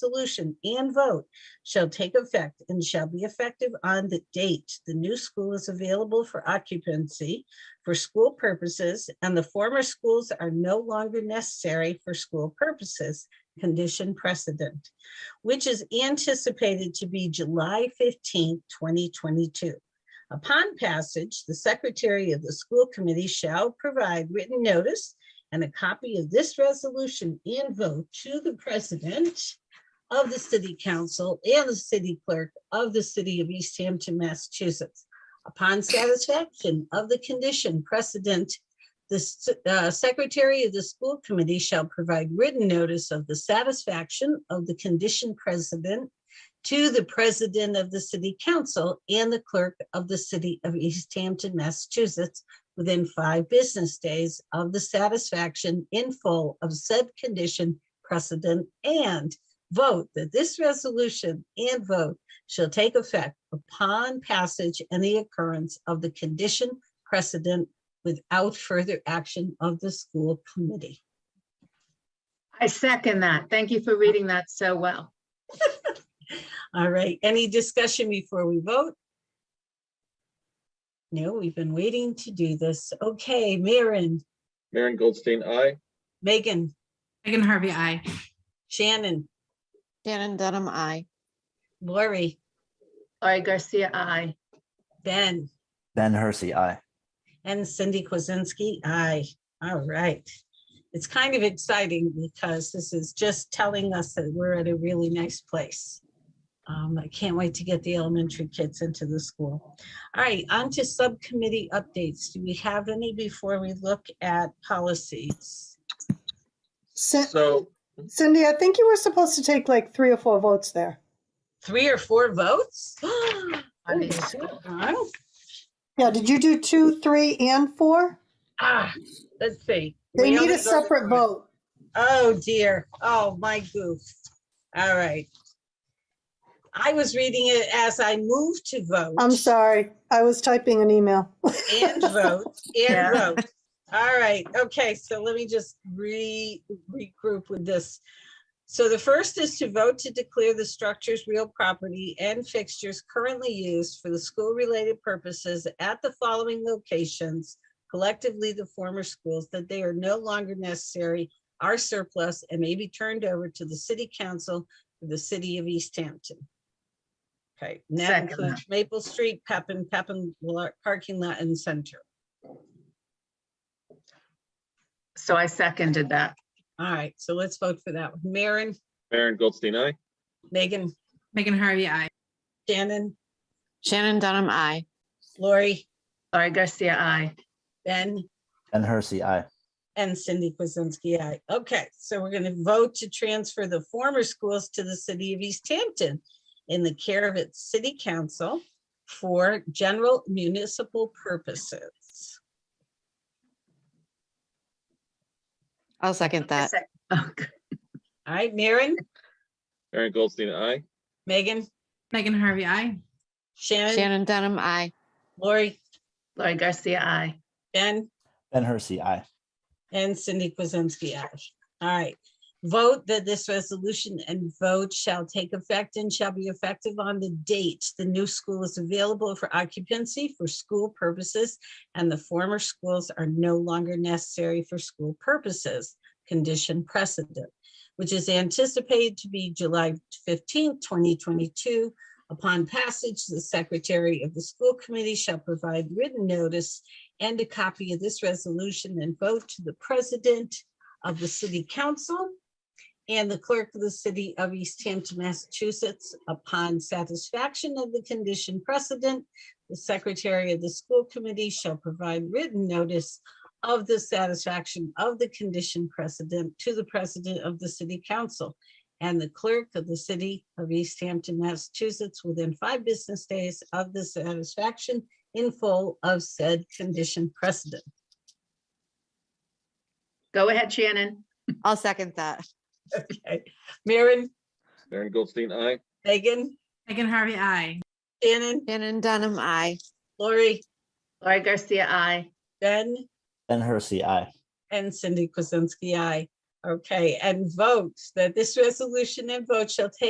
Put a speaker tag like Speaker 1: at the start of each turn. Speaker 1: resolution and vote shall take effect and shall be effective on the date the new school is available for occupancy for school purposes and the former schools are no longer necessary for school purposes, condition precedent, which is anticipated to be July 15, 2022. Upon passage, the secretary of the school committee shall provide written notice and a copy of this resolution and vote to the president of the city council and the city clerk of the city of East Hampton, Massachusetts. Upon satisfaction of the condition precedent, the s- uh, secretary of the school committee shall provide written notice of the satisfaction of the condition precedent to the president of the city council and the clerk of the city of East Hampton, Massachusetts within five business days of the satisfaction in full of said condition precedent and vote that this resolution and vote shall take effect upon passage and the occurrence of the condition precedent without further action of the school committee.
Speaker 2: I second that. Thank you for reading that so well.
Speaker 1: All right, any discussion before we vote? No, we've been waiting to do this. Okay, Maren,
Speaker 3: Maren Goldstein, aye.
Speaker 1: Megan,
Speaker 4: Megan Harvey, I.
Speaker 1: Shannon,
Speaker 5: Shannon Dunham, I.
Speaker 1: Lori,
Speaker 2: Laurie Garcia, I.
Speaker 1: Ben,
Speaker 6: Ben Hersey, aye.
Speaker 1: and Cindy Kuzensky. Aye. All right. It's kind of exciting because this is just telling us that we're at a really nice place. Um, I can't wait to get the elementary kids into the school. All right, on to subcommittee updates. Do we have any before we look at policies?
Speaker 7: Cin-
Speaker 3: So,
Speaker 7: Cindy, I think you were supposed to take like three or four votes there.
Speaker 1: Three or four votes?
Speaker 2: On each.
Speaker 1: Oh,
Speaker 7: Yeah, did you do two, three, and four?
Speaker 1: Ah, let's see.
Speaker 7: They
Speaker 1: We
Speaker 7: need
Speaker 1: only
Speaker 7: a
Speaker 1: voted
Speaker 7: separate
Speaker 1: for it.
Speaker 7: vote.
Speaker 1: Oh dear. Oh, my goof. All right. I was reading it as I moved to vote.
Speaker 7: I'm sorry, I was typing an email.
Speaker 1: And vote,
Speaker 2: Yeah.
Speaker 1: and vote. All right, okay, so let me just re, regroup with this. So the first is to vote to declare the structures real property and fixtures currently used for the school-related purposes at the following locations, collectively the former schools, that they are no longer necessary, are surplus, and may be turned over to the city council for the city of East Hampton. Okay, and that
Speaker 2: Second.
Speaker 1: includes Maple Street, Pepin, Pepin Lo- Parking Lot and Center.
Speaker 2: So I seconded that.
Speaker 1: All right, so let's vote for that. one. Maren,
Speaker 3: Maren Goldstein, aye.
Speaker 1: Megan,
Speaker 4: Megan Harvey, I.
Speaker 1: Shannon,
Speaker 5: Shannon Dunham, I.
Speaker 1: Lori,
Speaker 2: Laurie Garcia, I.
Speaker 1: Ben,
Speaker 6: Ben Hersey, aye.
Speaker 1: and Cindy Kuzensky, aye. Okay, so we're gonna vote to transfer the former schools to the city of East Hampton in the care of its city council for general municipal purposes.
Speaker 5: I'll second that.
Speaker 2: Oh, good.
Speaker 1: All right, Maren,
Speaker 3: Maren Goldstein, aye.
Speaker 1: Megan,
Speaker 4: Megan Harvey, I.
Speaker 1: Shannon,
Speaker 5: Shannon Dunham, I.
Speaker 1: Lori,
Speaker 2: Laurie Garcia, I.
Speaker 1: Ben,
Speaker 6: Ben Hersey, aye.
Speaker 1: And Cindy Kuzensky, aye. All right. Vote that this resolution and vote shall take effect and shall be effective on the date the new school is available for occupancy for school purposes and the former schools are no longer necessary for school purposes, condition precedent, which is anticipated to be July fifteenth, twenty twenty-two. Upon passage, the secretary of the school committee shall provide written notice and a copy of this resolution and vote to the president of the city council and the clerk of the city of East Hampton, Massachusetts. Upon satisfaction of the condition precedent, the secretary of the school committee shall provide written notice of the satisfaction of the condition precedent to the president of the city council and the clerk of the city of East Hampton, Massachusetts, within five business days of the satisfaction in full of said condition precedent.
Speaker 2: Go ahead, Shannon.
Speaker 5: I'll second that.
Speaker 1: Okay, Maren,
Speaker 3: Maren Goldstein, aye.
Speaker 1: Megan,
Speaker 4: Megan Harvey, I.
Speaker 1: Shannon,
Speaker 5: Shannon Dunham, I.
Speaker 1: Lori,
Speaker 2: Laurie Garcia, I.
Speaker 1: Ben,
Speaker 6: Ben Hersey, aye.
Speaker 1: and Cindy Kuzensky, I. Okay, and vote that this resolution and vote shall take